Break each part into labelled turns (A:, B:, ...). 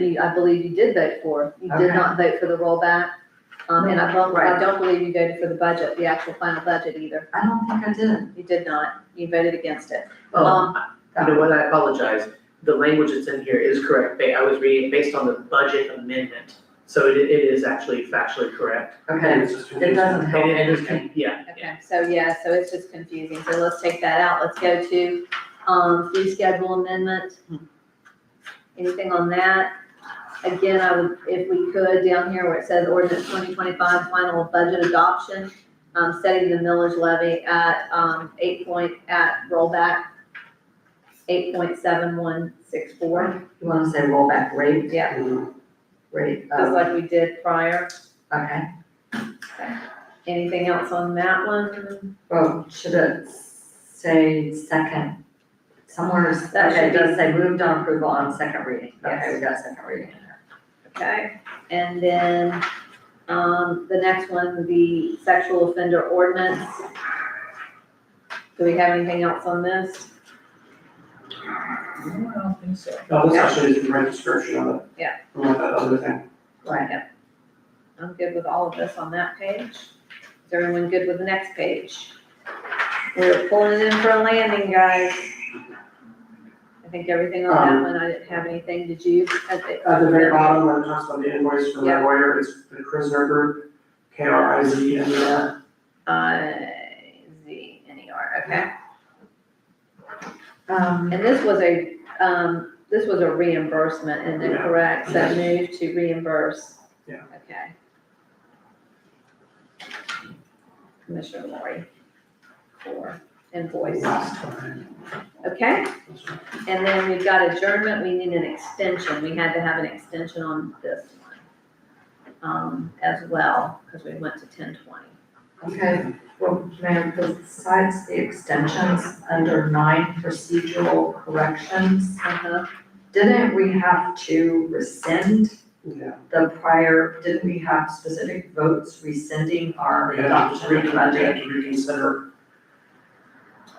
A: you, I believe you did vote for. You did
B: Okay.
A: not vote for the rollback. Um, and I don't, I
B: Right.
A: don't believe you voted for the budget, the actual final budget either.
B: I don't think I did.
A: You did not. You voted against it.
C: Oh,
A: Um,
C: you know what, I apologize, the language that's in here is correct, Ba- I was reading based on the budget amendment, so it, it is actually factually correct.
B: Okay, it doesn't help
C: And it is,
B: anything.
C: yeah, yeah.
A: Okay, so yeah, so it's just confusing, so let's take that out, let's go to, um, fee schedule amendment. Anything on that? Again, I would, if we could, down here where it says ordinance twenty twenty-five final budget adoption, um, setting the millage levy at, um, eight point, at rollback, eight point seven one six four,
B: You wanna say rollback rate?
A: Yeah.
B: Mm, Rate,
A: just
B: um,
A: like we did prior.
B: okay,
A: Anything else on that one?
B: well, should it say second? Somewhere, is-
A: That
B: okay, it
A: should be-
B: does say moved on approval on second reading, okay,
A: Yes.
B: we got second reading in there.
A: Okay, and then, um, the next one, the sexual offender ordinance. Do we have anything else on this?
C: No, Mm, I don't think so.
D: No, this actually is the right description of it.
A: Yeah.
D: Unlike that other thing.
B: Right,
A: I'm good with all of this on that page. Is everyone good with the next page? We're pulling in for a landing, guys. I think everything on that
D: Um,
A: one, I didn't have anything, did you? At the-
D: At the very bottom, where it talks about the invoice from the
A: Yeah.
D: lawyer, it's the Krisner Group, K R I Z N E R.
A: Uh, Z N E R, okay.
B: um,
A: And this was a, um, this was a reimbursement, isn't it
D: Yeah.
A: correct? So move to reimburse.
D: Yeah.
A: Okay. Commissioner Lori for invoice.
D: Last time.
A: Okay, and then we've got adjournment. We need an extension. We had to have an extension on this one. Um, as well, because we went to ten twenty.
B: okay, well, ma'am, besides the extensions under nine procedural corrections,
A: Uh-huh.
B: didn't we have to rescind
D: Yeah,
B: the prior, didn't we have specific votes rescinding our
D: we had to,
B: adoption
D: we
B: of
D: had
B: the
D: to- we had
B: budget?
D: to reconsider.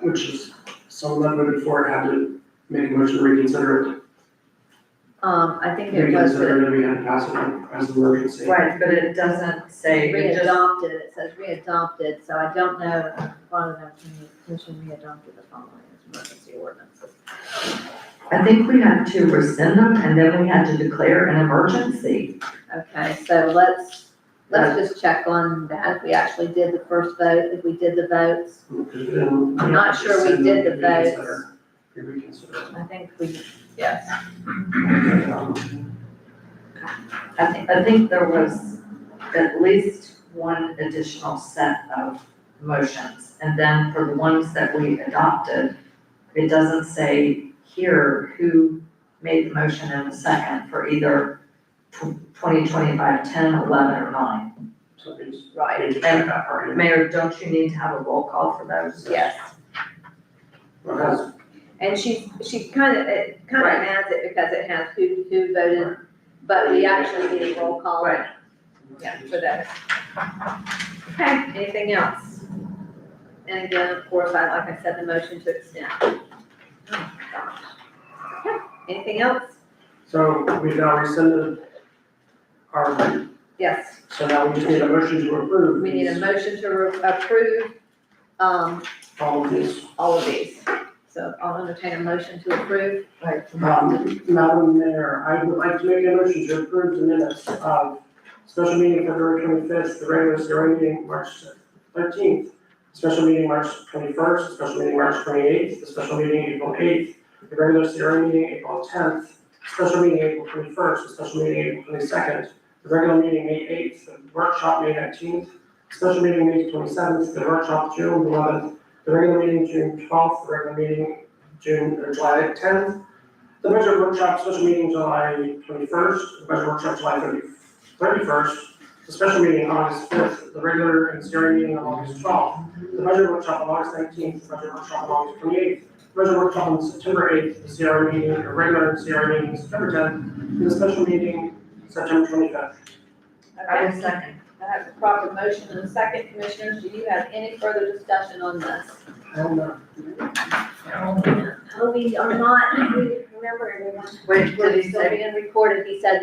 D: Which is, someone that voted for it had to make a motion to reconsider it.
A: Um, I think it was
D: Reconsider it, and we had to pass it as an emergency.
B: Right, but it doesn't say, it just,
A: Readopted, it says readopted, so I don't know, I don't know, can you, commission readopted the following as emergency ordinances.
B: I think we had to rescind them and then we had to declare an emergency.
A: Okay, so let's, let's just check on that, if we actually did the first vote, if we did the votes.
D: I'm
A: not sure we did the votes.
D: We reconsider.
A: I think we, yes.
D: Um,
B: I think, I think there was at least one additional set of motions. And then for the ones that we adopted, it doesn't say here who made the motion and the second for either tw- 20, 25, 10, 11, or nine.
D: So we just-
A: Right,
D: we need to check that part in.
B: Mayor, don't you need to have a roll call for those?
A: yes.
D: Because
A: And she, she kind of, it kind of
B: Right.
A: adds it because it has who, who voted, but we actually need a roll call.
B: Right.
A: Yeah, for those. Okay, anything else? And again, of course, I, like I said, the motion to extend. Oh, Okay, Anything else?
D: So we've now rescinded our,
A: Yes,
D: so now we just need a motion to approve.
A: we need a motion to re- approve, um,
D: All of these.
A: all of these. So I'll entertain a motion to approve.
B: Right.
D: Um, Madam Mayor, I would like to make a motion to approve the minutes of special meeting February twenty-fifth, the regular steering meeting March thirteenth, special meeting March twenty-first, special meeting March twenty-eighth, the special meeting April eighth, the regular steering meeting April tenth, special meeting April twenty-first, the special meeting April twenty-second, the regular meeting May eighth, the workshop May nineteenth, special meeting May twenty-seventh, the workshop June eleventh, the regular meeting June twelfth, the regular meeting June, or July tenth, the budget workshop special meeting July twenty-first, the budget workshop July thirty-first, the special meeting August fifth, the regular and steering meeting on August twelfth, the budget workshop on August nineteenth, the budget workshop on August twenty-eighth, the budget workshop on September eighth, the steering meeting, the regular and steering meeting September tenth, and the special meeting September twenty-fifth.
B: I will second.
A: I have a proper motion and a second, commissioners, do you have any further discussion on this?
D: Hell no.
A: No, we are not, we remember everyone.
B: Wait, did he
A: We're
B: say
A: still being recorded, he said